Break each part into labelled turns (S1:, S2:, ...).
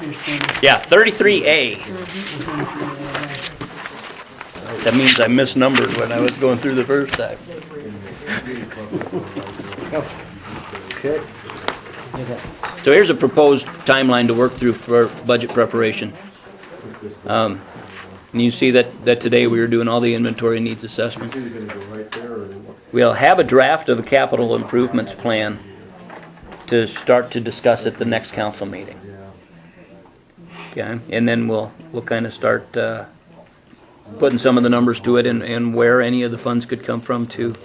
S1: 15.
S2: Yeah, 33A. That means I misnumbered when I was going through the first time.
S3: Okay.
S2: So here's a proposed timeline to work through for budget preparation. Um, And you see that, that today we were doing all the inventory needs assessment.
S3: Either gonna go right there or
S2: We'll have a draft of a capital improvements plan to start to discuss at the next council meeting. Okay, and then we'll, we'll kind of start uh, putting some of the numbers to it and, and where any of the funds could come from to,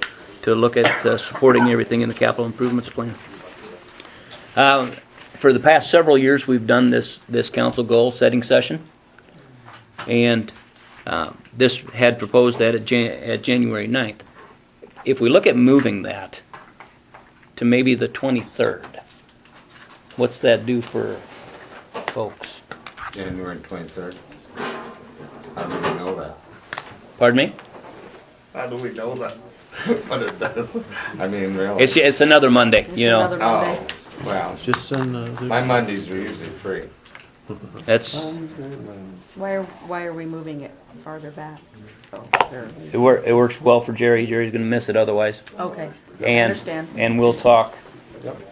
S2: to look at uh, supporting everything in the capital improvements plan. Uh, For the past several years, we've done this, this council goal-setting session. And uh, this had proposed that at Jan, at January 9th if we look at moving that to maybe the 23rd, what's that do for folks?
S4: January twenty-third. How do we know that?
S2: Pardon me?
S4: How do we know that? But it does, I mean, really.
S2: It's, it's another Monday, you know?
S5: another-
S4: Oh, well,
S3: Just send,
S4: my Mondays are usually free.
S2: That's,
S5: Why are, why are we moving it farther back? Oh, is there a
S2: it
S5: reason?
S2: wor, it works well for Jerry. Jerry's gonna miss it otherwise.
S5: Okay, I
S2: And,
S5: understand.
S2: and we'll talk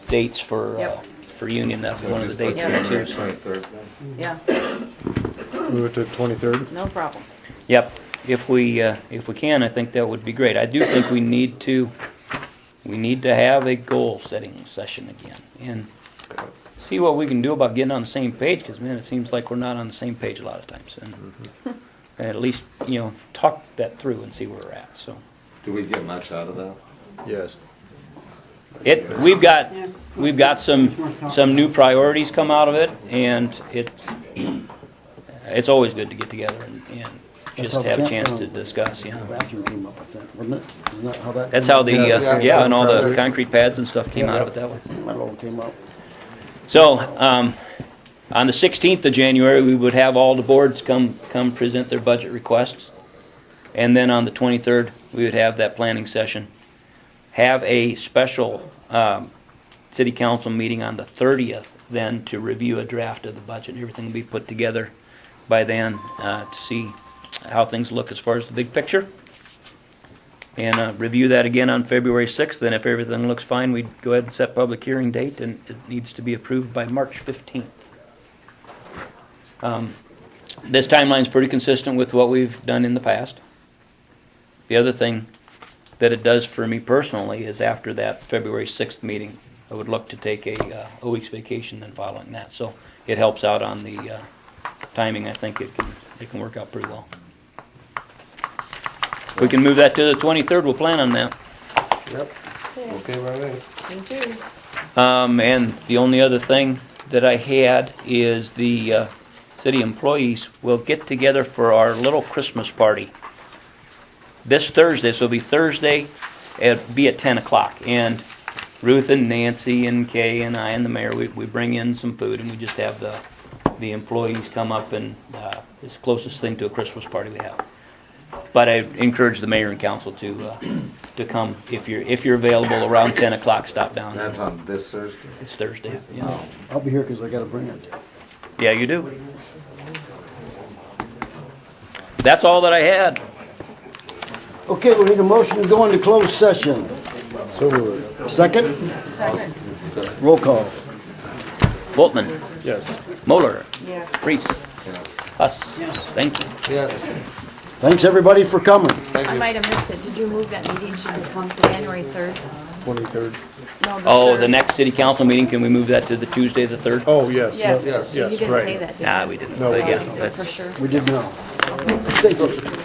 S2: dates for, uh,
S5: Yep.
S2: for Union. That's
S4: So
S2: one of the
S4: just put
S2: dates
S5: Yeah.
S2: here
S4: January
S2: too.
S4: twenty-third.
S5: Yeah,
S3: move it to twenty-third?
S5: no problem.
S2: Yep. If we, uh, if we can, I think that would be great. I do think we need to, we need to have a goal-setting session again and see what we can do about getting on the same page, because man, it seems like we're not on the same page a lot of times. And and at least, you know, talk that through and see where we're at, so.
S4: Do we get much out of that?
S3: Yes.
S2: It, we've got, we've got some, some new priorities come out of it, and it, it's always good to get together and- and just have a chance to discuss, you know.
S6: Bathroom came up with that, wasn't it? Isn't that how that?
S2: That's
S6: came
S2: how
S6: up?
S2: the, uh,
S4: Yeah.
S2: yeah, and all the concrete pads and stuff came out of it that way.
S6: That all came up.
S2: So, um, on the 16th of January, we would have all the boards come, come present their budget requests. And then on the 23rd, we would have that planning session. Have a special um, city council meeting on the 30th then to review a draft of the budget. Everything will be put together by then uh, to see how things look as far as the big picture. And uh, review that again on February 6th, then if everything looks fine, we'd go ahead and set public hearing date, and it needs to be approved by March 15th. Um, This timeline's pretty consistent with what we've done in the past. The other thing that it does for me personally is after that February 6th meeting, I would look to take a, uh, a week's vacation then following that, so it helps out on the uh, timing, I think it can, it can work out pretty well. If we can move that to the 23rd, we'll plan on that.
S3: Yep, okay, right, right.
S5: Thank you.
S2: Um, and the only other thing that I had is the, uh, city employees will get together for our little Christmas party. This Thursday, so it'll be Thursday, it'll be at ten o'clock, and Ruth and Nancy and Kay and I and the mayor, we, we bring in some food and we just have the, the employees come up and, uh, it's the closest thing to a Christmas party we have. But I encourage the mayor and council to, uh, to come, if you're, if you're available around ten o'clock, stop down.
S4: That's on this Thursday.
S2: It's Thursday, yeah.
S6: I'll be here because I gotta bring it.
S2: Yeah, you do. That's all that I had.
S6: Okay, we need a motion to go into closed session.
S3: So moved.
S6: Second,
S5: Second.
S6: roll call.
S2: Boltman,
S3: Yes.
S2: Moller,
S5: Yes.
S2: Priest, Huss, thank you.
S3: Yes.
S6: Thanks, everybody, for coming.
S7: I might have missed it. Did you move that meeting to the month of January 3rd?
S3: Twenty-third.
S7: No,
S2: Oh, the
S7: 3rd.
S2: next city council meeting, can we move that to the Tuesday, the 3rd?
S3: Oh, yes.
S5: Yes.
S3: Yes,
S7: You didn't
S3: yes,
S7: say
S3: right.
S7: that, did you?
S2: Nah, we didn't,
S3: No,
S2: but
S3: we
S2: yeah,
S7: For
S2: that's,
S7: sure.
S6: We did now. Thank you.